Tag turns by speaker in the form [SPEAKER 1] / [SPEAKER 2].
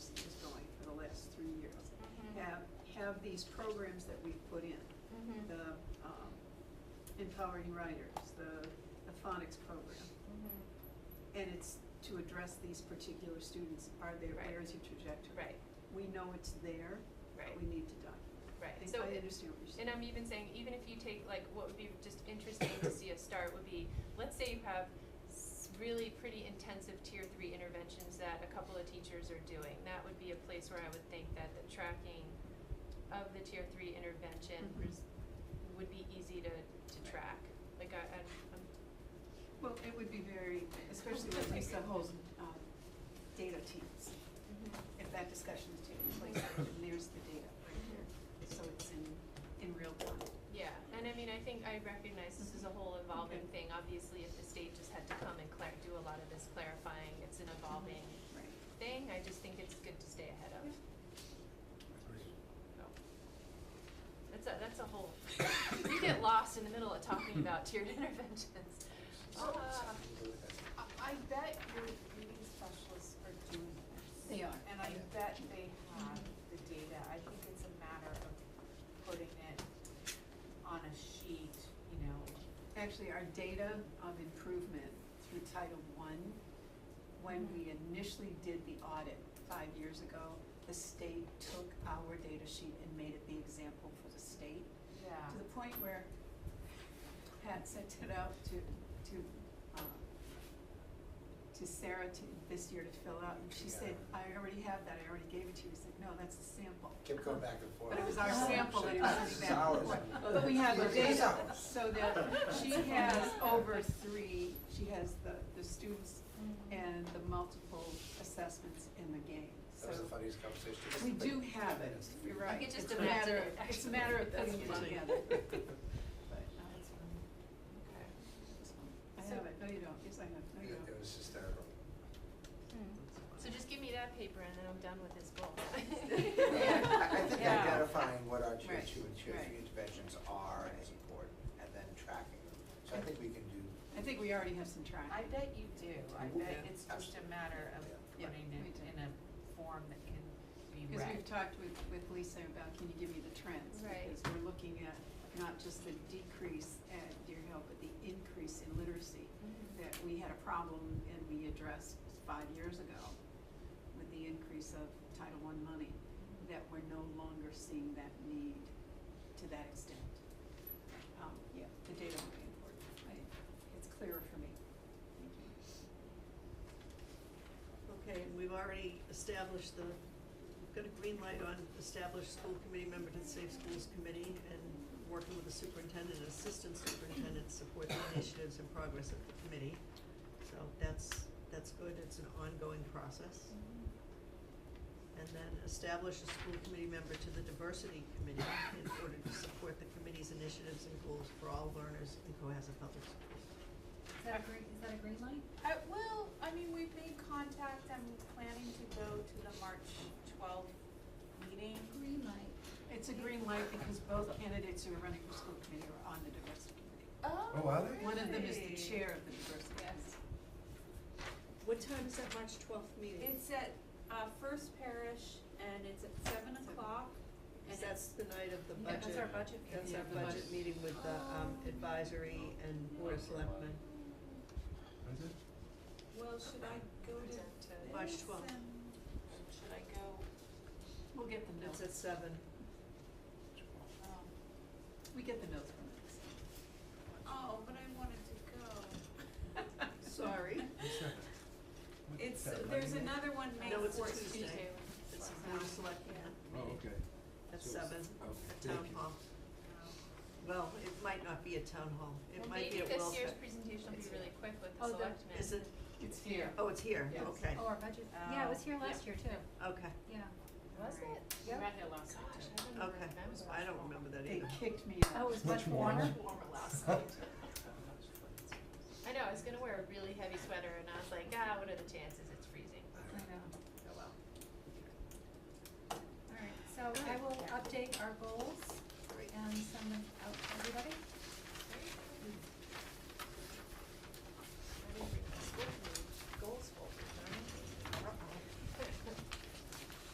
[SPEAKER 1] Mm-hmm.
[SPEAKER 2] of these programs that we've put in,
[SPEAKER 1] Mhm.
[SPEAKER 2] the um, Empowering Writers, the the phonics program,
[SPEAKER 1] Mhm.
[SPEAKER 2] and it's to address these particular students, are there,
[SPEAKER 1] Right.
[SPEAKER 2] where is your trajectory?
[SPEAKER 1] Right,
[SPEAKER 2] We know it's there, but
[SPEAKER 1] right,
[SPEAKER 2] we need to document.
[SPEAKER 1] right.
[SPEAKER 2] I think
[SPEAKER 1] So
[SPEAKER 2] I
[SPEAKER 1] it-
[SPEAKER 2] understand what you're saying.
[SPEAKER 1] And I'm even saying, even if you take, like, what would be just interesting to see us start would be, let's say you have s- really pretty intensive tier three interventions that a couple of teachers are doing. That would be a place where I would think that the tracking of the tier three intervention
[SPEAKER 2] Mhm.
[SPEAKER 1] res- would be easy to, to
[SPEAKER 2] Right.
[SPEAKER 1] track. Like, I, I'm, I'm,
[SPEAKER 2] Well, it would be very, especially with these, the whole um, data teams, if that discussion is taking place, and there's the data right here, so it's in, in real time.
[SPEAKER 1] yeah. And I mean, I think I recognize this is a whole evolving
[SPEAKER 2] Okay.
[SPEAKER 1] thing. Obviously, if the state just had to come and clar- do a lot of this clarifying, it's an evolving
[SPEAKER 2] Right.
[SPEAKER 1] thing. I just think it's good to stay ahead of.
[SPEAKER 2] Mm-hmm. Yeah.
[SPEAKER 1] No. That's a, that's a whole, you get lost in the middle of talking about tiered interventions.
[SPEAKER 3] So-
[SPEAKER 1] Ah.
[SPEAKER 3] I, I bet your reading specialists are doing this.
[SPEAKER 2] They are.
[SPEAKER 3] And I bet they have the data, I think it's a matter of putting it on a sheet, you know.
[SPEAKER 2] Actually, our data of improvement through Title I, when we initially did the audit five years ago, the state took our data sheet and made it the example for the state,
[SPEAKER 3] Yeah.
[SPEAKER 2] to the point where Pat sent it out to, to, um, to Sarah to, this year to fill out, and she said, I already have that, I already gave it to you, I said, no, that's the sample.
[SPEAKER 4] Kept going back and forth.
[SPEAKER 2] But it was our sample and it was an
[SPEAKER 4] This is
[SPEAKER 2] example.
[SPEAKER 4] ours.
[SPEAKER 2] Right, But we have the
[SPEAKER 4] This is
[SPEAKER 2] data,
[SPEAKER 4] ours.
[SPEAKER 2] so that she has over three, she has the, the students and the multiple assessments in the game, so.
[SPEAKER 4] That was the funniest conversation.
[SPEAKER 2] We do have it, you're right.
[SPEAKER 1] could just
[SPEAKER 2] It's a matter of-
[SPEAKER 1] imagine it,
[SPEAKER 2] It's a matter of
[SPEAKER 1] actually.
[SPEAKER 2] putting it
[SPEAKER 1] That's
[SPEAKER 2] together.
[SPEAKER 1] funny.
[SPEAKER 2] But, no, it's
[SPEAKER 1] Okay.
[SPEAKER 2] fine. I have it, no you don't, yes I have, no
[SPEAKER 4] It
[SPEAKER 2] you
[SPEAKER 4] it
[SPEAKER 2] don't.
[SPEAKER 4] was hysterical.
[SPEAKER 1] So just give me that paper and then I'm done with this goal.
[SPEAKER 2] Yeah.
[SPEAKER 4] I I think
[SPEAKER 1] Yeah.
[SPEAKER 4] identifying what our tier
[SPEAKER 2] Right,
[SPEAKER 4] two and tier
[SPEAKER 2] right.
[SPEAKER 4] three interventions are
[SPEAKER 2] Right.
[SPEAKER 4] is important, and then tracking them. So I think we can do,
[SPEAKER 2] I think we already have some track.
[SPEAKER 3] I bet you do, I
[SPEAKER 4] Yeah.
[SPEAKER 3] bet it's just a matter of
[SPEAKER 2] Yeah,
[SPEAKER 3] putting
[SPEAKER 2] we
[SPEAKER 3] it
[SPEAKER 2] do.
[SPEAKER 3] in a form that can be
[SPEAKER 2] Because
[SPEAKER 3] read.
[SPEAKER 2] we've talked with, with Lisa about, can you give me the trends?
[SPEAKER 1] Right.
[SPEAKER 2] Because we're looking at not just the decrease at Deer Hill, but the increase in literacy that we had a problem and we addressed five years ago with the increase of Title I money, that we're no longer seeing that need to that extent. Um, yeah, the data will be important. I, it's clearer for me. Thank you.
[SPEAKER 5] Okay, and we've already established the, we've got a green light on established school committee member to the Safe Schools Committee and working with the superintendent and assistant superintendent to support the initiatives and progress of the committee. So that's, that's good, it's an ongoing process. And then establish a school committee member to the diversity committee in order to support the committee's initiatives and goals for all learners in Cohasset Public Schools.
[SPEAKER 6] Is that a green, is that a green light?
[SPEAKER 3] I, Uh, well, I mean, we've made contact, I'm planning to go to the March twelfth meeting.
[SPEAKER 6] Green light.
[SPEAKER 2] It's a green light because both candidates who are running for school committee are on the diversity committee.
[SPEAKER 3] Oh,
[SPEAKER 4] are they?
[SPEAKER 2] One of them is the chair of the diversity committee.
[SPEAKER 3] Yes,
[SPEAKER 5] What time is that March twelfth meeting?
[SPEAKER 3] it's at, uh, First Parish and it's at seven o'clock. and
[SPEAKER 5] That's the night of the
[SPEAKER 3] Yeah,
[SPEAKER 5] budget.
[SPEAKER 3] that's our budget
[SPEAKER 5] That's
[SPEAKER 3] meeting.
[SPEAKER 5] our
[SPEAKER 2] Yeah, the
[SPEAKER 5] budget
[SPEAKER 2] budget.
[SPEAKER 5] meeting with the um advisory and board of selectmen.
[SPEAKER 3] Well, should I go to this
[SPEAKER 1] To-
[SPEAKER 5] March 12th.
[SPEAKER 3] and- Should I go,
[SPEAKER 2] We'll get the notes,
[SPEAKER 5] That's at seven.
[SPEAKER 3] um,
[SPEAKER 2] we get the notes from them.
[SPEAKER 3] oh, but I wanted to go.
[SPEAKER 5] Sorry.
[SPEAKER 3] It's, there's another one May
[SPEAKER 5] No, it's a
[SPEAKER 3] fourthes.
[SPEAKER 5] Tuesday. It's the board of selectmen meeting
[SPEAKER 7] Oh, okay.
[SPEAKER 5] at
[SPEAKER 7] So it's-
[SPEAKER 5] seven,
[SPEAKER 7] okay,
[SPEAKER 5] at
[SPEAKER 7] thank
[SPEAKER 5] town
[SPEAKER 7] you.
[SPEAKER 5] hall. Well, it might not be at town hall. It
[SPEAKER 1] Well,
[SPEAKER 5] might
[SPEAKER 1] maybe
[SPEAKER 5] be at
[SPEAKER 1] this
[SPEAKER 5] Wilson.
[SPEAKER 1] year's presentation will be really quick with the
[SPEAKER 6] Oh, the-
[SPEAKER 1] selectmen.
[SPEAKER 5] Is it,
[SPEAKER 2] It's here.
[SPEAKER 5] oh, it's here,
[SPEAKER 2] Yes.
[SPEAKER 5] okay,
[SPEAKER 6] Oh, our budget, yeah, it was here last year too,
[SPEAKER 5] okay.
[SPEAKER 6] yeah.
[SPEAKER 1] Was it?
[SPEAKER 3] Alright.
[SPEAKER 6] Yep.
[SPEAKER 3] We read it last night
[SPEAKER 1] Gosh,
[SPEAKER 3] too.
[SPEAKER 1] I don't
[SPEAKER 5] Okay,
[SPEAKER 1] remember.
[SPEAKER 5] I don't remember that
[SPEAKER 2] They
[SPEAKER 5] either.
[SPEAKER 2] kicked me out.
[SPEAKER 6] Oh, it was
[SPEAKER 7] Much
[SPEAKER 6] much warmer.
[SPEAKER 3] warmer last night.
[SPEAKER 1] I know, I was gonna wear a really heavy sweater and I was like, ah, what are the chances it's freezing?
[SPEAKER 6] I know.
[SPEAKER 4] Oh,
[SPEAKER 6] All right, so I will update our goals
[SPEAKER 5] Great.
[SPEAKER 6] and send them out to everybody.